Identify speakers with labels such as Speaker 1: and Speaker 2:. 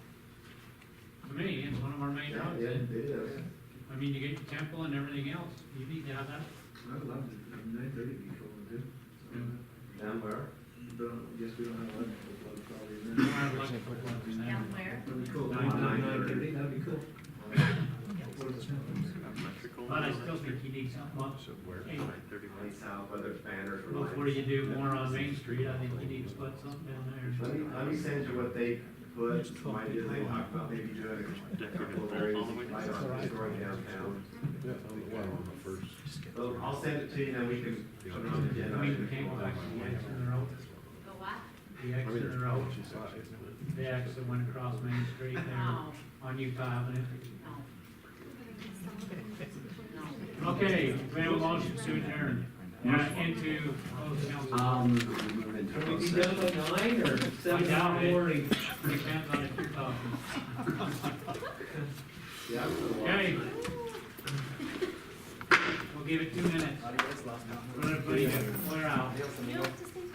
Speaker 1: of our main
Speaker 2: Yeah,
Speaker 1: roads.
Speaker 2: yeah,
Speaker 1: and-
Speaker 2: it is.
Speaker 1: I mean, you get your temple and everything else, you need to have that.
Speaker 2: I love it, I mean, nine thirty people would do. Uh,
Speaker 3: Down where?
Speaker 2: But I guess we don't have one for blood probably in
Speaker 1: You
Speaker 2: there.
Speaker 1: don't have electrical plugs in there.
Speaker 4: Down where?
Speaker 2: That'd be cool.
Speaker 1: Nine-
Speaker 3: nine
Speaker 2: thirty, that'd be cool. What is it?
Speaker 1: But I still think you need something up. Anyway,
Speaker 3: Any south, whether it's banners or
Speaker 1: Before
Speaker 3: lights.
Speaker 1: you do more on Main Street, I think you need to put something down there.
Speaker 3: Let me, let me send you what they put, might do, they talk about maybe doing a couple of areas, light on destroying downtown.
Speaker 5: Yeah, on the, well, on the first.
Speaker 3: So I'll send it to you, and we can put it on the
Speaker 1: I mean, you
Speaker 3: agenda.
Speaker 1: can't go back to the exit of the road,
Speaker 4: The what?
Speaker 1: the
Speaker 5: I mean,
Speaker 1: exit of the
Speaker 5: there's
Speaker 1: road,
Speaker 5: policy size, but
Speaker 1: the exit that went across Main Street there
Speaker 4: No,
Speaker 1: on Utah Avenue.
Speaker 4: Oh, no.
Speaker 1: Okay, we have a motion to adjourn. Now into closed council.
Speaker 3: Um, we move into
Speaker 2: Can we
Speaker 3: closed
Speaker 2: be
Speaker 3: session.
Speaker 2: done by nine or seven in
Speaker 1: doubt
Speaker 2: the
Speaker 1: it.
Speaker 2: morning?
Speaker 1: Depends on if you're talking.
Speaker 3: Yeah, I'm gonna walk.
Speaker 1: Okay. We'll give it two minutes. Let everybody clear out.
Speaker 4: You don't just